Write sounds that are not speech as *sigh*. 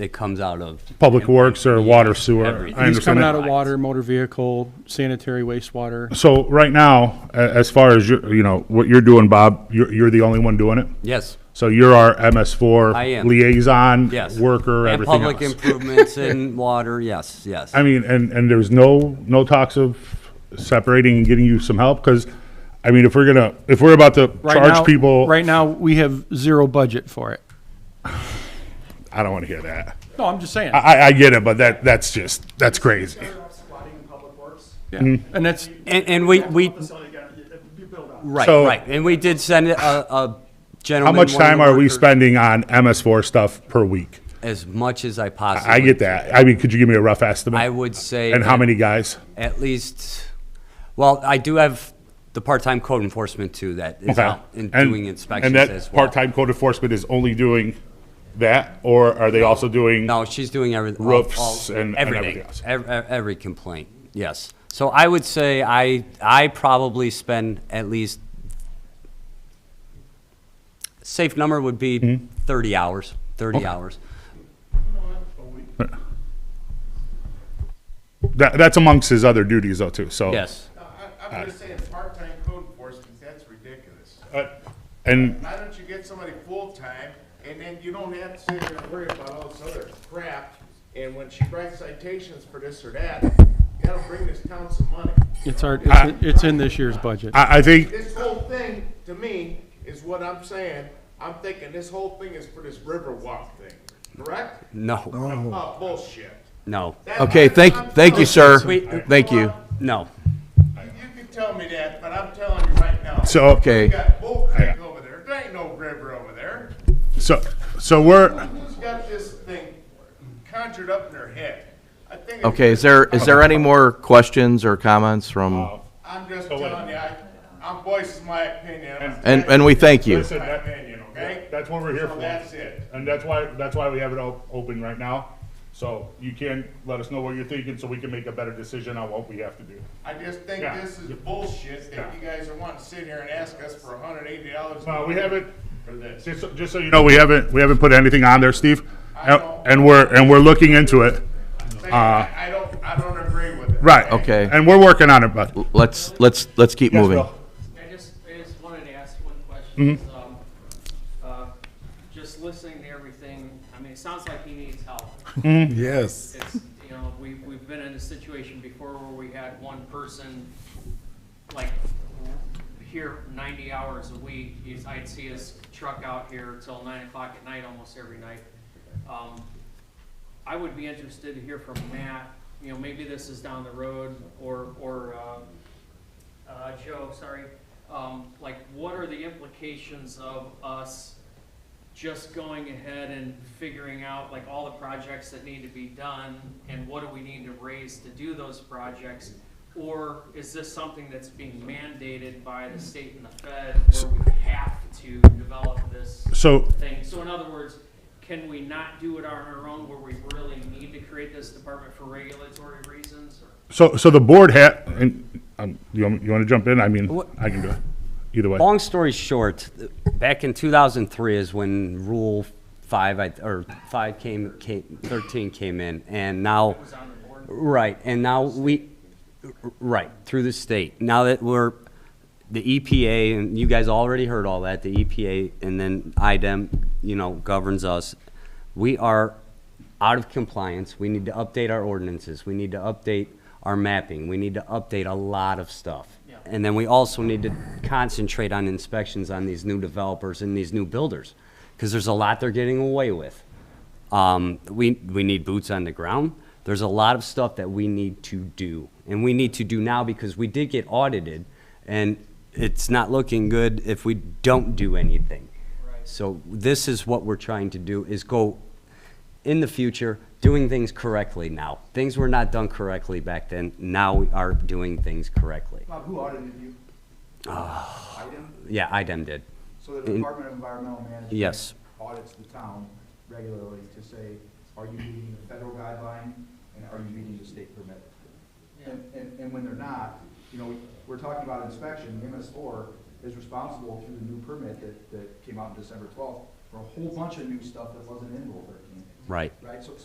that comes out of. Public Works or Water Sewer. Everything. I He's understand It's coming that. out of water, motor vehicle, sanitary wastewater. So right now, a- as far as your, you know, what you're doing, Bob, you're, you're the only one doing it? Yes. So you're our MS4 I am. liaison, Yes. worker, And everything Public else. *laughs* improvements and water, yes, yes. I mean, and, and there's no, no talks of separating and getting you some help? Because, I mean, if we're gonna, if we're about to Right now- charge people, Right now, we have zero budget for it. I don't want to hear that. No, I'm just saying. I, I get it, but that, that's just, that's crazy. Yeah. And that's, And, and we, we, right, So- right. And we did send a, a How gentleman. much one of the time are we workers, spending on MS4 stuff per week? As much as I possibly. I get that. I mean, could you give me a rough estimate? I would say. And how that- many guys? At least, well, I do have the part-time code enforcement too that is Okay. out and And- doing inspections And as that well. part-time code enforcement is only doing that, or are they also doing? No, she's doing everything. Roofs and- and everything else. Every, every complaint, yes. So I would say I, I probably spend at least, safe number would be Hmm? thirty hours, thirty hours. That, that's amongst his other duties though too, so. Yes, I- I'm just saying, part-time code enforcement, that's ridiculous. Uh, And, Why don't you get somebody full-time, and then you don't have to sit there and worry about all this other crap, and when she writes citations for this or that, that'll bring this town some money. it's our, it's in- it's in this year's budget. I, I think, This whole thing, to me, is what I'm saying, I'm thinking this whole thing is for this Riverwalk thing, correct? no, Oh, bullshit. no, That- Okay, I'm- thank, thank you, sir. Wait. Thank you. no. You can tell me that, but I'm telling you right now. so. You Okay, got Bull Creek over there, there ain't no river over there. So, so we're, Who's got this thing conjured up in their head? I think. it's- okay, is there, is there any more questions or comments from, I'm just Oh, telling you, I, I'm voicing my opinion, and, and we thank you. listen, my that- opinion, okay? that's what we're here So for. that's it. And that's why, that's why we have it all open right now. So you can let us know what you're thinking so we can make a better decision on what we have to do. I just think Yeah. this is bullshit that you guys are wanting to sit here and ask us for hundred eighty dollars. Well, we haven't, For this. just, just so you know, we haven't, we haven't put anything on there, Steve. And know. and we're, and we're looking into it. uh, Saying, I I don't, I don't agree with it. Right. Okay. And we're working on it, bud. Let's, let's, let's keep Yes, moving. Bill. I just, I just wanted to ask one question. is, um, uh, Just listening to everything, I mean, it sounds like he needs help. Yes. It's, you know, we, we've been in a situation before where we had one person, like, here ninety hours a week. He's- I'd see his truck out here till nine o'clock at night almost every night. Um, I would be interested to hear from Matt, you know, maybe this is down the road, or, or, uh, uh, Joe, sorry. Um, like, what are the implications of us just going ahead and figuring out, like, all the projects that need to be done, and what do we need to raise to do those projects? Or is this something that's being mandated by the state and the fed, where we have to develop this? So, thing. So in other words, can we not do it on our own where we really need to create this department for regulatory reasons? or- so, so the board had, and, um, you want, you want to jump in? I mean, What- I can do it. Either way. Long story short, back in 2003 is when Rule 5, I- or 5 came, came, 13 came in, and now. Right, and now we, right, through the state. Now that we're, the EPA, and you guys already heard all that, the EPA and then IDEM, you know, governs us. We are out of compliance. We need to update our ordinances. We need to update our mapping. We need to update a lot of stuff. Yeah. And then we also need to concentrate on inspections on these new developers and these new builders, because there's a lot they're getting away with. Um, we, we need boots on the ground. There's a lot of stuff that we need to do, and we need to do now because we did get audited, and it's not looking good if we don't do anything. Right. So this is what we're trying to do, is go in the future, doing things correctly now. Things were not done correctly back then, now we are doing things correctly. Bob, who audited you? Ah. Item? Yeah, IDEM did. So the Department of Environmental Management. Yes. Audits the town regularly to say, are you meeting the federal guideline and are you meeting the state permit? And, and, and when they're not, you know, we're talking about inspection, MS four is responsible through the new permit that, that came out on December twelfth for a whole bunch of new stuff that wasn't in Rule thirteen. right. right? So,